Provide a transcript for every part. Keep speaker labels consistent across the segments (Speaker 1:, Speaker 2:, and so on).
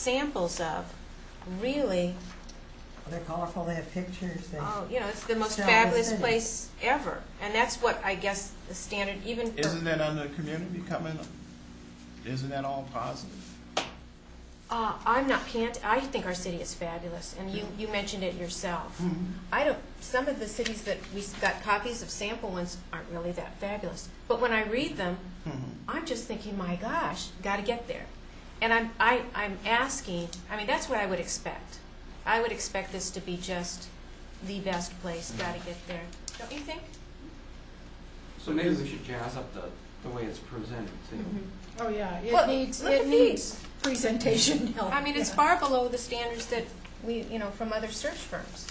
Speaker 1: samples of really,
Speaker 2: They're colorful, they have pictures, they,
Speaker 1: oh, you know, it's the most
Speaker 2: So
Speaker 1: fabulous
Speaker 2: it's-
Speaker 1: place ever. And that's what I guess the standard, even for.
Speaker 3: Isn't that under community coming, isn't that all positive?
Speaker 1: Uh, I'm not pant. I think our city is fabulous, and you, you mentioned it yourself. I don't. Some of the cities that we s- got copies of sample ones aren't really that fabulous, but when I read them, I'm just thinking, my gosh, got to get there. And I'm I, I'm asking. I mean, that's what I would expect. I would expect this to be just the best place. Got to get there. Don't you think?
Speaker 4: So maybe we should jazz up the, the way it's presented too.
Speaker 1: Mm-hmm.
Speaker 5: Oh, yeah,
Speaker 1: Well,
Speaker 5: it needs,
Speaker 1: look
Speaker 5: it
Speaker 1: at
Speaker 5: needs presentation help.
Speaker 1: I mean, it's
Speaker 5: Oh,
Speaker 1: far
Speaker 5: Yeah.
Speaker 1: below the standards that we you know from other search firms.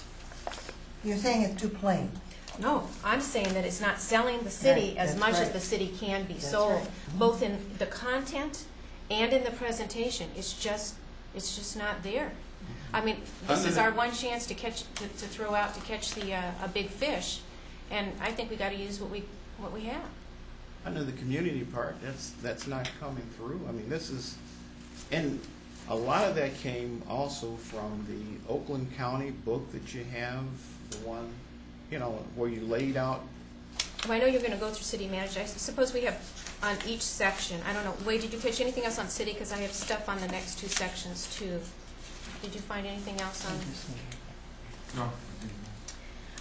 Speaker 2: you're saying it's too plain.
Speaker 1: No, I'm saying that it's not selling the city
Speaker 2: Right,
Speaker 1: as
Speaker 2: that's
Speaker 1: much as
Speaker 2: right.
Speaker 1: the city can be
Speaker 2: That's
Speaker 1: sold,
Speaker 2: right.
Speaker 1: both in the content and in the presentation. It's just, it's just not there.
Speaker 2: Mm-hmm.
Speaker 1: I mean, this
Speaker 3: Under
Speaker 1: is
Speaker 3: the-
Speaker 1: our one chance to catch, to to throw out, to catch the, uh, a big fish, and I think we gotta use what we, what we have.
Speaker 3: Under the community part, that's, that's not coming through. I mean, this is, and a lot of that came also from the Oakland County book that you have, the one, you know, where you laid out,
Speaker 1: Well, I know you're gonna go through city manager, I suppose we have on each section, I don't know, Wade, did you catch anything else on city? Because I have stuff on the next two sections too. Did you find anything else on?
Speaker 4: No.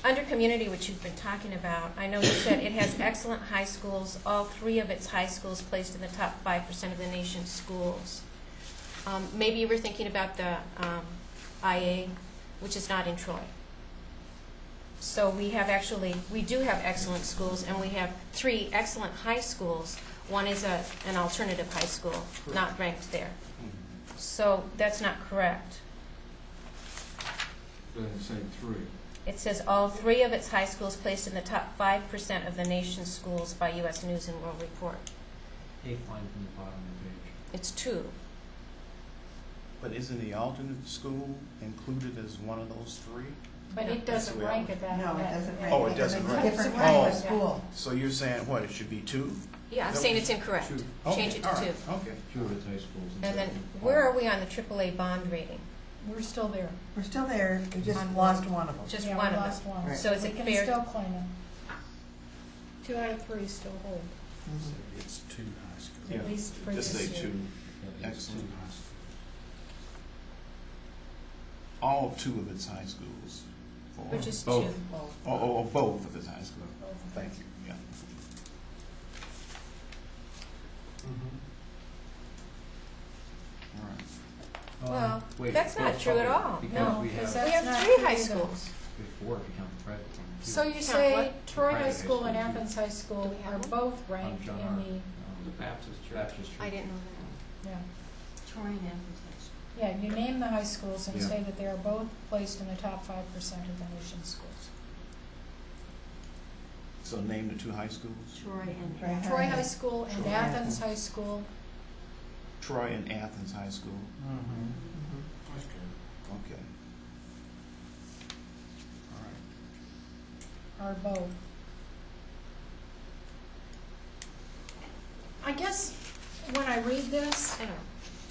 Speaker 1: Under community, which you've been talking about, I know you said it has excellent high schools, all three of its high schools placed in the top five percent of the nation's schools. Um, maybe you were thinking about the, um, IA, which is not in Troy. So we have actually, we do have excellent schools, and we have three excellent high schools. One is a, an alternative high school, not ranked there. So that's not correct.
Speaker 4: Doesn't say three.
Speaker 1: It says all three of its high schools placed in the top five percent of the nation's schools by U.S. News and World Report.
Speaker 4: Eighth line from the bottom of the page.
Speaker 1: It's two.
Speaker 3: but isn't the alternate school included as one of those three?
Speaker 5: But it doesn't
Speaker 3: Yeah.
Speaker 5: rank at that.
Speaker 2: No, it
Speaker 5: that-
Speaker 2: doesn't rank.
Speaker 3: Oh, it
Speaker 2: because
Speaker 3: doesn't
Speaker 2: it's a
Speaker 3: rank.
Speaker 2: Different kind of
Speaker 3: Oh.
Speaker 2: school.
Speaker 3: So you're saying, what, it should be two?
Speaker 1: Yeah, I'm
Speaker 3: That
Speaker 1: saying
Speaker 3: was
Speaker 1: it's incorrect.
Speaker 4: two.
Speaker 1: Change
Speaker 3: Okay,
Speaker 1: it to
Speaker 3: all
Speaker 1: two.
Speaker 3: right, Okay.
Speaker 4: Two of its high schools.
Speaker 1: And then, where are we on the AAA bond rating?
Speaker 5: We're still there.
Speaker 2: We're still there, we just
Speaker 1: On-
Speaker 2: lost one of them.
Speaker 1: Just
Speaker 5: Yeah,
Speaker 1: one
Speaker 5: we
Speaker 1: of
Speaker 5: lost
Speaker 1: them.
Speaker 5: one.
Speaker 2: Right.
Speaker 1: So is
Speaker 5: We
Speaker 1: it
Speaker 5: can
Speaker 1: fair-
Speaker 5: still claim them. Two out of three still hold,
Speaker 2: Mhm.
Speaker 6: It's two high schools.
Speaker 3: Yeah.
Speaker 5: at least for
Speaker 3: Just say
Speaker 5: this year.
Speaker 3: two,
Speaker 6: It's two
Speaker 3: excellent.
Speaker 6: high schools.
Speaker 3: All two of its high schools. or-
Speaker 1: Which is two.
Speaker 3: Both. Or, or or both of its high schools. Oh. Thank you, yeah.
Speaker 1: Mm-hmm.
Speaker 3: All right.
Speaker 4: Um,
Speaker 1: Well, that's not true at all. No,
Speaker 4: Because we
Speaker 5: because
Speaker 4: have,
Speaker 1: We
Speaker 5: that-
Speaker 1: have
Speaker 5: That's not
Speaker 1: three
Speaker 5: true
Speaker 1: high
Speaker 5: either.
Speaker 1: schools.
Speaker 4: we have four if you count the private one.
Speaker 5: So
Speaker 4: too.
Speaker 5: you say
Speaker 1: what?
Speaker 5: Troy
Speaker 4: Private
Speaker 5: High
Speaker 4: high
Speaker 5: School and
Speaker 4: school.
Speaker 5: Athens High School
Speaker 1: we have
Speaker 5: are
Speaker 1: one?
Speaker 5: both
Speaker 4: On
Speaker 5: ranked in
Speaker 4: John R.
Speaker 5: the,
Speaker 4: The Baptist Church. Baptist
Speaker 1: I didn't know
Speaker 5: yeah.
Speaker 1: that. Troy and Athens.
Speaker 5: Yeah, you name the high schools and
Speaker 4: Yeah.
Speaker 5: say that they are both placed in the top five percent of the nation's schools.
Speaker 3: So name the two high schools,
Speaker 1: Troy and.
Speaker 2: Right.
Speaker 5: Troy High School and
Speaker 2: Troy.
Speaker 5: Athens High School
Speaker 3: Troy and Athens High School,
Speaker 4: Mm-hmm.
Speaker 2: Mhm.
Speaker 6: That's true.
Speaker 3: okay. All right,
Speaker 5: are both. I guess when I read this,
Speaker 1: I know.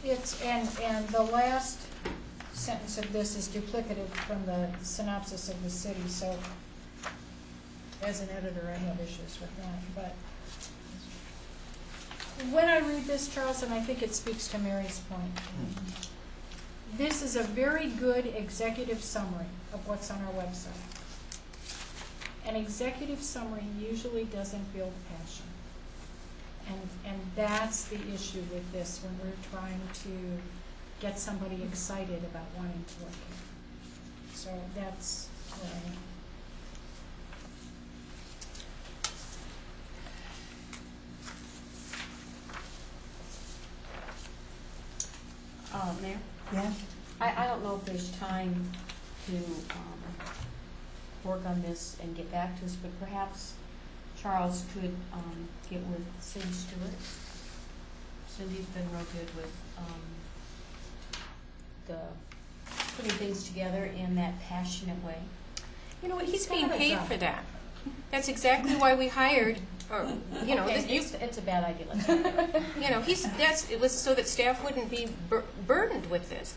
Speaker 5: it's, and, and the last sentence of this is duplicative from the synopsis of the city, so as an editor, I have issues with that, but when I read this, Charles, and I think it speaks to Mary's point,
Speaker 3: Hmm.
Speaker 5: this is a very good executive summary of what's on our website. An executive summary usually doesn't build passion. And, and that's the issue with this, when we're trying to get somebody excited about wanting to work here. So that's where I am. Oh,
Speaker 7: Uh, Mayor,
Speaker 2: Yes,
Speaker 7: I, I don't know if there's time to, um, work on this and get back to us, but perhaps Charles could, um, get with Cindy Stewart. Cindy's been real good with, um, the, putting things together in that passionate way.
Speaker 1: You know what, he's being
Speaker 7: Got it
Speaker 1: paid
Speaker 7: done.
Speaker 1: for that. That's exactly why we hired, or, you know,
Speaker 7: Okay,
Speaker 1: this- you
Speaker 7: It's, it's a bad idea, let's not do it.
Speaker 1: You know, he's, that's, it was so that staff wouldn't be bur- burdened with this.